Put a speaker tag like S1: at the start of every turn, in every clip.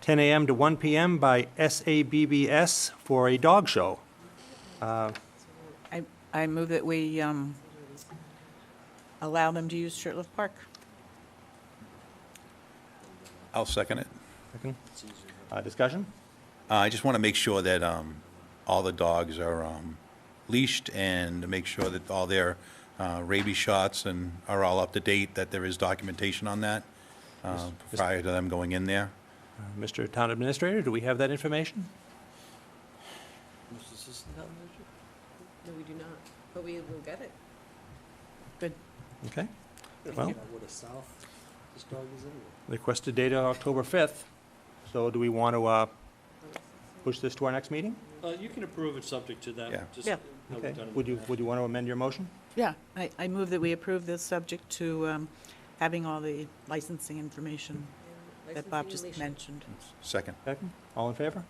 S1: 10 a.m. to 1 p.m. by SABBS for a dog show.
S2: I, I move that we um, allow them to use Shirtlift Park.
S3: I'll second it.
S1: Second. Uh, Discussion?
S3: Uh, I just want to make sure that um, all the dogs are um, leashed and to make sure that all their uh, rabies shots and are all up to date, that there is documentation on that uh, prior to them going in there.
S1: Uh, Mr. Town Administrator, do we have that information?
S4: No, we do not, but we will get it.
S2: Good.
S1: Okay. Well,
S5: What a south this dog is anyway.
S1: requested data October 5th, so do we want to uh, push this to our next meeting?
S5: Uh, you can approve it subject to
S3: Yeah.
S5: that, just
S2: Yeah.
S5: how we've
S1: Okay.
S5: done it
S1: Would
S5: in
S1: you,
S5: the past.
S1: would you want to amend your motion?
S2: Yeah. I, I move that we approve this subject to um, having all the licensing information that Bob
S4: Licensing
S2: just
S4: relation-
S2: mentioned.
S3: Second.
S1: Second. All in favor?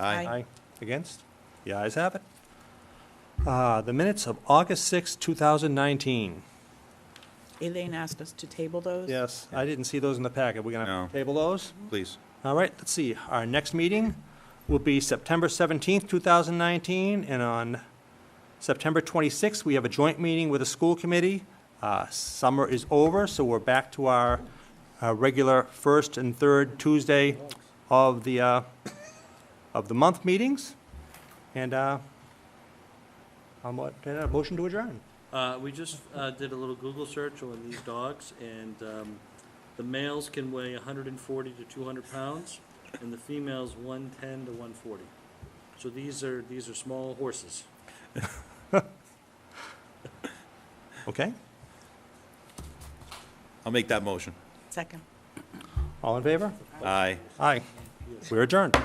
S2: Aye.
S1: Against? The ayes have it. Uh, The minutes of August 6, 2019.
S2: Elaine asked us to table those.
S1: Yes, I didn't see those in the packet. We're going
S3: No.
S1: to table those?
S3: Please.
S1: All right, let's see. Our next meeting will be September 17th, 2019, and on September 26th, we have a joint meeting with the school committee. Uh, Summer is over, so we're back to our uh, regular first and third Tuesday of the, uh, of the month meetings. And uh, I'm, what, a motion to adjourn.
S5: Uh, we just, uh, did a little Google search on these dogs, and, um, the males can weigh hundred and forty to two hundred pounds, and the females one-ten to one forty. So these are, these are small horses.
S1: Okay?
S3: I'll make that motion.
S2: Second.
S1: All in favor?
S3: Aye.
S1: Aye. We're adjourned.